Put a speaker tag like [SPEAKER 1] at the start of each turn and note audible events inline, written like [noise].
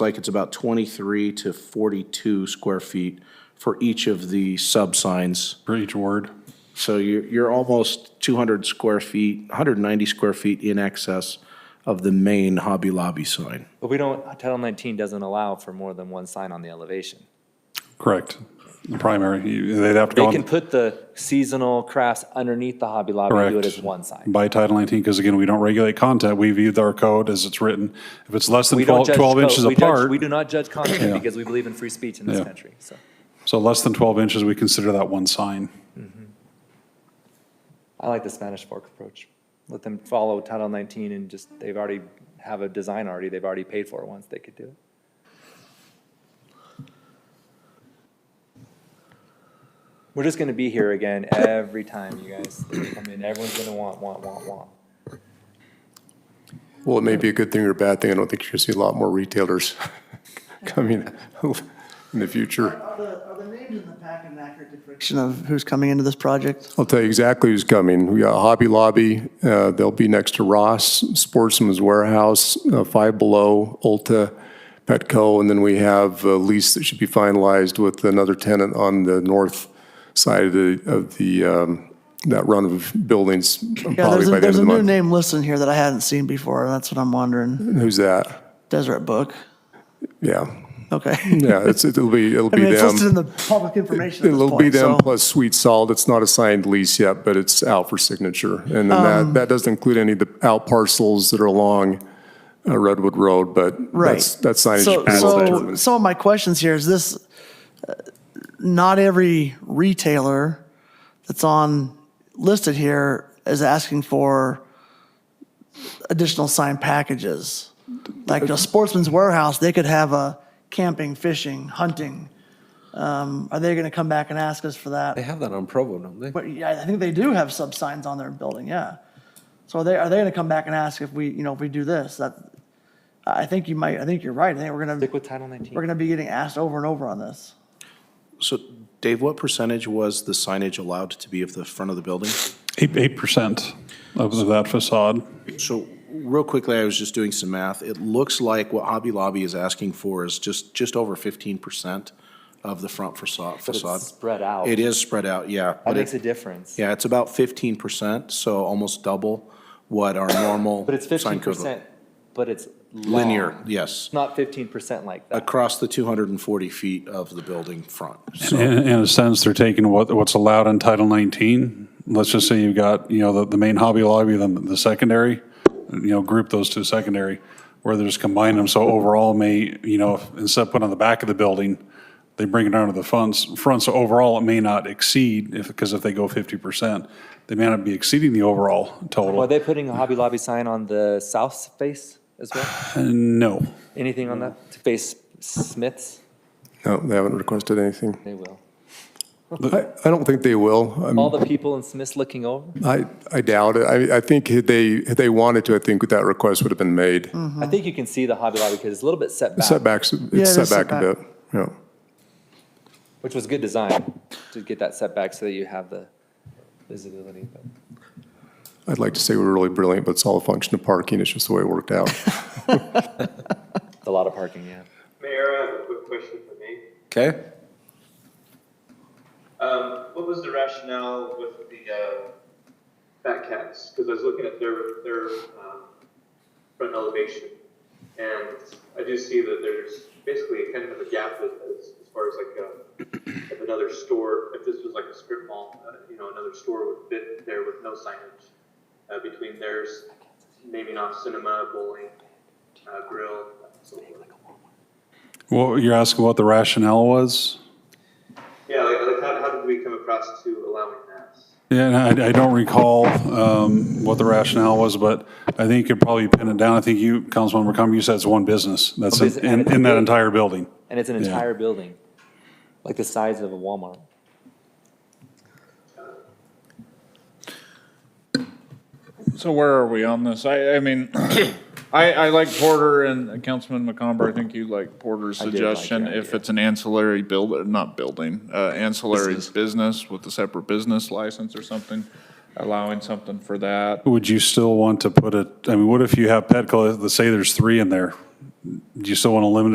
[SPEAKER 1] like it's about 23 to 42 square feet for each of the sub-signs.
[SPEAKER 2] for each word.
[SPEAKER 1] So you're, you're almost 200 square feet, 190 square feet in excess of the main Hobby Lobby sign.
[SPEAKER 3] But we don't, Title 19 doesn't allow for more than one sign on the elevation.
[SPEAKER 2] Correct. The primary, you- they'd have to
[SPEAKER 3] They
[SPEAKER 2] go
[SPEAKER 3] can
[SPEAKER 2] on
[SPEAKER 3] put the seasonal crafts underneath the Hobby Lobby and do it
[SPEAKER 2] Correct.
[SPEAKER 3] as one sign.
[SPEAKER 2] by Title 19, because again, we don't regulate content. We view our code as it's written. If it's less than
[SPEAKER 3] We don't
[SPEAKER 2] 12
[SPEAKER 3] judge
[SPEAKER 2] 12
[SPEAKER 3] code.
[SPEAKER 2] inches
[SPEAKER 3] We judge-
[SPEAKER 2] apart,
[SPEAKER 3] We do not judge content
[SPEAKER 2] Yeah.
[SPEAKER 3] because we believe in free speech in this
[SPEAKER 2] Yeah.
[SPEAKER 3] country, so.
[SPEAKER 2] so less than 12 inches, we consider that one sign.
[SPEAKER 3] I like the Spanish Fork approach. Let them follow Title 19 and just, they've already have a design already, they've already paid for it once, they could do it. We're just gonna be here again every time, you guys. I mean, everyone's gonna want, want, want, want.
[SPEAKER 4] Well, it may be a good thing or a bad thing. I don't think you're going to see a lot more retailers [laughs] coming in the future.
[SPEAKER 5] Are the, are the names in the pack an accurate depiction of who's coming into this project?
[SPEAKER 4] I'll tell you exactly who's coming. We got Hobby Lobby, uh, they'll be next to Ross, Sportsman's Warehouse, uh, Five Below, Ulta, Petco, and then we have a lease that should be finalized with another tenant on the north side of the, of the, um, that run of buildings,
[SPEAKER 5] Yeah,
[SPEAKER 4] probably by
[SPEAKER 5] there's a,
[SPEAKER 4] the end
[SPEAKER 5] there's
[SPEAKER 4] of
[SPEAKER 5] a
[SPEAKER 4] the
[SPEAKER 5] new
[SPEAKER 4] month.
[SPEAKER 5] name listed here that I hadn't seen before, and that's what I'm wondering.
[SPEAKER 4] Who's that?
[SPEAKER 5] Deseret Book.
[SPEAKER 4] Yeah, [laughs]
[SPEAKER 5] Okay.
[SPEAKER 4] yeah, it's, it'll be, it'll
[SPEAKER 5] I
[SPEAKER 4] be them.
[SPEAKER 5] mean, it's listed in the public information at this
[SPEAKER 4] It'll be
[SPEAKER 5] point,
[SPEAKER 4] them
[SPEAKER 5] so.
[SPEAKER 4] plus Sweet Salt. It's not a signed lease yet, but it's out for signature. And then
[SPEAKER 5] Um,
[SPEAKER 4] that, that doesn't include any of the out parcels that are along uh, Redwood Road, but
[SPEAKER 5] Right.
[SPEAKER 4] that's, that signage
[SPEAKER 5] So,
[SPEAKER 4] is
[SPEAKER 5] so
[SPEAKER 4] determined.
[SPEAKER 5] some of my questions here is this, uh, not every retailer that's on, listed here is asking for additional sign packages. Like a Sportsman's Warehouse, they could have a camping, fishing, hunting. Um, Are they going to come back and ask us for
[SPEAKER 6] They
[SPEAKER 5] that?
[SPEAKER 6] have that on Provo, don't they?
[SPEAKER 5] But yeah, I think they do have sub signs on their building, yeah. So are they, are they going to come back and ask if we, you know, if we do this? That, I think you might, I think you're right. I think we're going to
[SPEAKER 3] Stick with Title 19.
[SPEAKER 5] we're gonna be getting asked over and over on this.
[SPEAKER 1] So Dave, what percentage was the signage allowed to be of the front of the building?
[SPEAKER 2] Eight- 8% of of that facade.
[SPEAKER 1] So real quickly, I was just doing some math. It looks like what Hobby Lobby is asking for is just, just over 15% of the front facade. facade.
[SPEAKER 3] spread out.
[SPEAKER 1] It is spread out, yeah.
[SPEAKER 3] That
[SPEAKER 1] but
[SPEAKER 3] makes
[SPEAKER 1] it-
[SPEAKER 3] a difference.
[SPEAKER 1] Yeah, it's about 15%, so almost double what our normal.
[SPEAKER 3] But it's
[SPEAKER 1] sign
[SPEAKER 3] fifteen
[SPEAKER 1] code look-
[SPEAKER 3] percent, but it's
[SPEAKER 1] Linear,
[SPEAKER 3] long.
[SPEAKER 1] yes,
[SPEAKER 3] It's not fifteen percent like that.
[SPEAKER 1] across the 240 feet of the building front. So
[SPEAKER 2] In, in a sense, they're taking what, what's allowed in Title 19. Let's just say you've got, you know, the, the main Hobby Lobby, then the secondary, you know, group those two secondary, where they just combine them, so overall may, you know, if- instead of putting on the back of the building, they bring it down to the fronts, front, so overall it may not exceed, if, because if they go 50%, they may not be exceeding the overall
[SPEAKER 3] Are
[SPEAKER 2] total.
[SPEAKER 3] they putting a Hobby Lobby sign on the south face as well?
[SPEAKER 2] No.
[SPEAKER 3] Anything on that to face Smiths?
[SPEAKER 4] No, they haven't requested anything.
[SPEAKER 3] They will.
[SPEAKER 4] I, I don't think they will. I'm-
[SPEAKER 3] All the people in Smiths looking over?
[SPEAKER 4] I, I doubt it. I, I think had they, had they wanted to, I think that request would have been made.
[SPEAKER 3] I think you can see the Hobby Lobby because it's a little bit set back,
[SPEAKER 4] Setbacks,
[SPEAKER 5] Mm-hmm. it
[SPEAKER 4] it's
[SPEAKER 5] is
[SPEAKER 4] set back a
[SPEAKER 5] setback.
[SPEAKER 4] bit, yeah.
[SPEAKER 3] which was good design to get that setback so that you have the visibility. but-
[SPEAKER 4] I'd like to say we're really brilliant, but it's all a function of parking. It's just the way it worked
[SPEAKER 5] [laughs]
[SPEAKER 4] out.
[SPEAKER 3] It's A lot of parking, yeah.
[SPEAKER 7] Mayor, I have a quick question for me.
[SPEAKER 6] Okay.
[SPEAKER 7] Um, what was the rationale with the, uh, fat cats? Cause I was looking at their, their, um, front elevation. And I do see that there's basically kind of a gap as, as as far as like, uh, if another store, if this was like a strip mall, uh, you know, another store would fit there with no signage. Uh, between theirs, naming off cinema, bowling, uh, grill, so forth.
[SPEAKER 2] Well, you're asking what the rationale was?
[SPEAKER 7] Yeah, like, like how, how did we come across to allowing that?
[SPEAKER 2] Yeah, and I, I don't recall um, what the rationale was, but I think you could probably pin it down. I think you, Councilmember Cummings, you said it's one business. That's
[SPEAKER 3] One business.
[SPEAKER 2] in, in- in that entire building.
[SPEAKER 3] And it's an
[SPEAKER 2] Yeah.
[SPEAKER 3] entire building, like the size of a Walmart.
[SPEAKER 8] So where are we on this? I, I mean, [coughs] I, I like Porter and Councilman McComber, I think you like Porter's
[SPEAKER 3] did like
[SPEAKER 8] suggestion.
[SPEAKER 3] that,
[SPEAKER 8] If
[SPEAKER 3] yeah.
[SPEAKER 8] it's an ancillary build, not building, uh, ancillary business with a separate business license or something, allowing something for that.
[SPEAKER 2] Would you still want to put it, I mean, what if you have Petco, let's say there's three in there? Do you still want to limit